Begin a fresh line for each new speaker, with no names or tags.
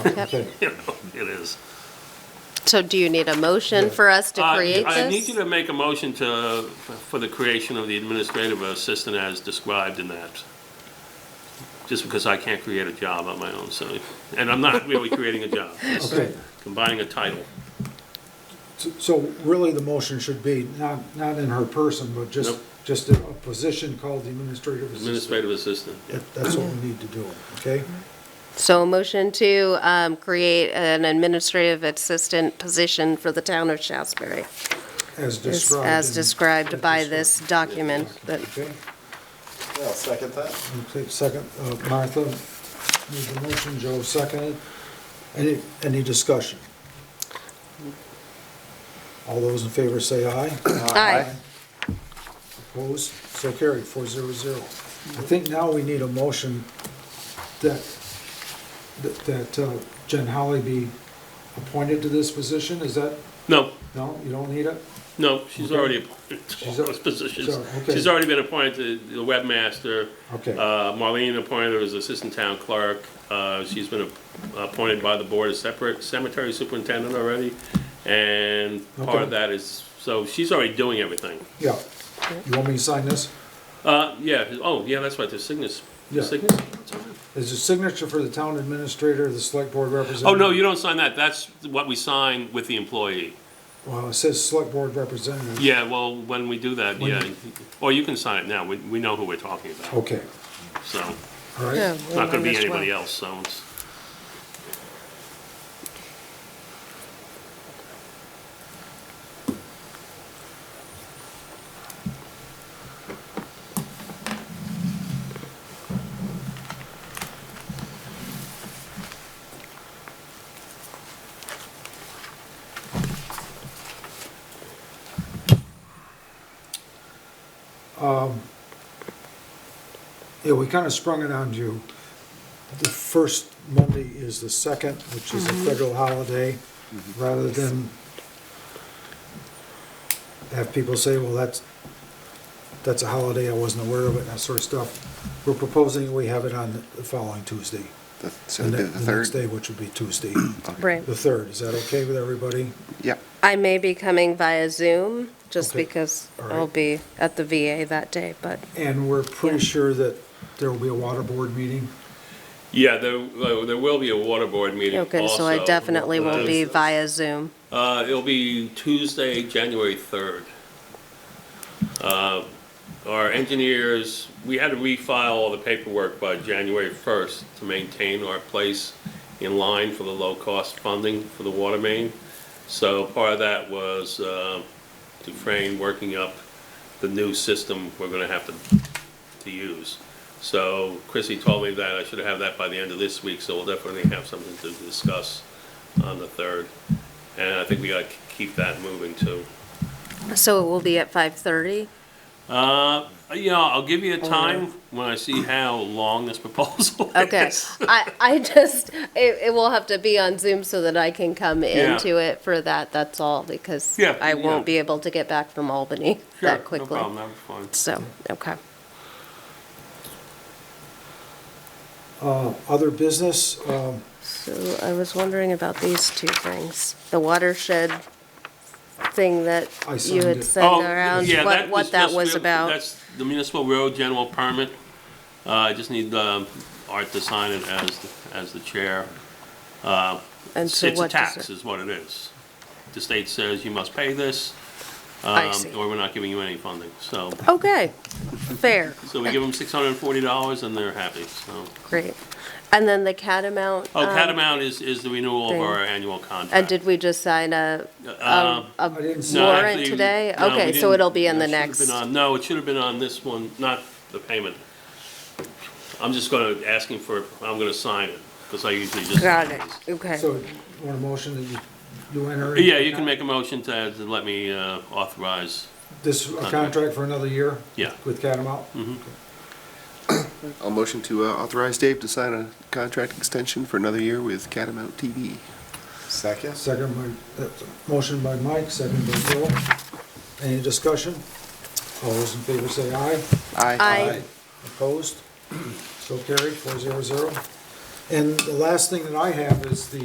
Yep.
You know, It is.
So do you need a motion for us to
Uh,
create
I need you
this?
to make a motion to, for the creation of the administrative assistant as described in that. Just because I can't create a job on my own, so, and I'm not really creating a job, just
Okay.
combining a title.
So- So really, the motion should be, not, not in her person, but just,
Nope.
just a a position called the administrative assistant.
Administrative assistant, yeah.
That- That's what we need to do, okay?
Mm-hmm. So a motion to um, create an administrative assistant position for the town of Shasberry
As
is
described.
as
in-
described by this document that
Okay,
I'll second that.
okay, second, uh, Martha made the motion, Joe seconded. Any, any discussion? All those in favor say aye.
Aye.
Opposed? So carried, four zero zero. I think now we need a motion that, that- that uh, Jen Holly be appointed to this position, is that,
No,
no, you don't need it?
no, she's
Okay.
already appointed to all
She's al-
those positions.
so, okay.
She's already been appointed to the webmaster.
Okay.
Uh, Marlene appointed her as assistant town clerk. Uh, She's been ap- appointed by the board as separate cemetery superintendent already. And part
Okay.
of that is, so she's already doing everything.
Yeah. You want me to sign this?
Uh, yeah, oh, yeah, that's right, the signatures.
Yeah. Is a signature for the town administrator, the select board representative?
Oh, no, you don't sign that. That's what we sign with the employee.
Well, it says select board representative.
Yeah, well, when we do that, yeah. Or you can sign it now. We, we know who we're talking about,
Okay,
so.
all
Yeah,
right.
It's not gonna
we
be
might as
anybody
well.
else, so it's,
Yeah, we kind of sprung it on you. The first Monday is the second, which is a federal holiday,
Mm-hmm.
rather than have people say, well, that's, that's a holiday, I wasn't aware of it, and that sort of stuff. We're proposing we have it on the following Tuesday.
The- So the
ne- The next day,
third?
which would be Tuesday,
Right.
the third. Is that okay with everybody?
Yep.
I may be coming via Zoom, just
Okay.
because
All
I'll
right.
be at the VA that day, but
And we're pretty sure that there will be a water board meeting?
Yeah, there, uh, there will be a water board meeting
okay, so I
also.
definitely will be via Zoom.
Uh, it'll be Tuesday, January third. Uh, our engineers, we had to refile all the paperwork by January first to maintain our place in line for the low-cost funding for the water main. So part of that was, uh, Dufrain working up the new system we're gonna have to, to use. So Chrissy told me that I should have that by the end of this week, so we'll definitely have something to discuss on the third. And I think we gotta k- keep that moving too.
So it will be at 5:30?
Uh, yeah, I'll give you a time when I see how long this proposal
Okay,
is.
I, I just, it, it will have to be on Zoom so that I can come
Yeah.
into it for that, that's all, because
Yeah,
I won't
yeah.
be able to get back from Albany
Sure,
that quickly.
No problem, that was fine.
So, okay.
Uh, Other business, um,
So I was wondering about these two things, the watershed thing that
I
you
signed
had
it.
sent
Oh,
around,
yeah,
what,
was
what that
just
was
mil-
about.
That's the municipal road general permit. Uh, I just need, um, Art to sign it as, the- as the chair.
And
It's
so
it's a
what does
tax
it?
is what it is. The state says you must pay this,
I
um,
see.
or we're not giving you any funding. So,
Okay, fair,
so we give them six hundred and forty dollars and they're happy, so.
great. And then the Catamount.
Oh,
um,
Catamount is, is the renewal of
thing.
our annual contract.
And did we just sign a,
Uh,
a a
I didn't see-
No,
warrant
actually,
today?
no, we
Okay, so
didn't.
it'll be in
It
the
should have
next.
been on- No, it should have been on this one, not the payment. I'm just gonna, asking for, I'm gonna sign it, because I usually just.
Got it, okay.
so you want a motion that you, you enter?
Yeah, you can make a motion to, to let me uh, authorize,
This, a contract for another year?
Yeah.
With Catamount?
I'll motion to uh, authorize Dave to sign a contract extension for another year with Catamount TV. Second.
Second by, uh, motion by Mike, second by Bill. Any discussion? All those in favor say aye.
Aye.
Aye.
Opposed? So carried, four zero zero. And the last thing that I have is the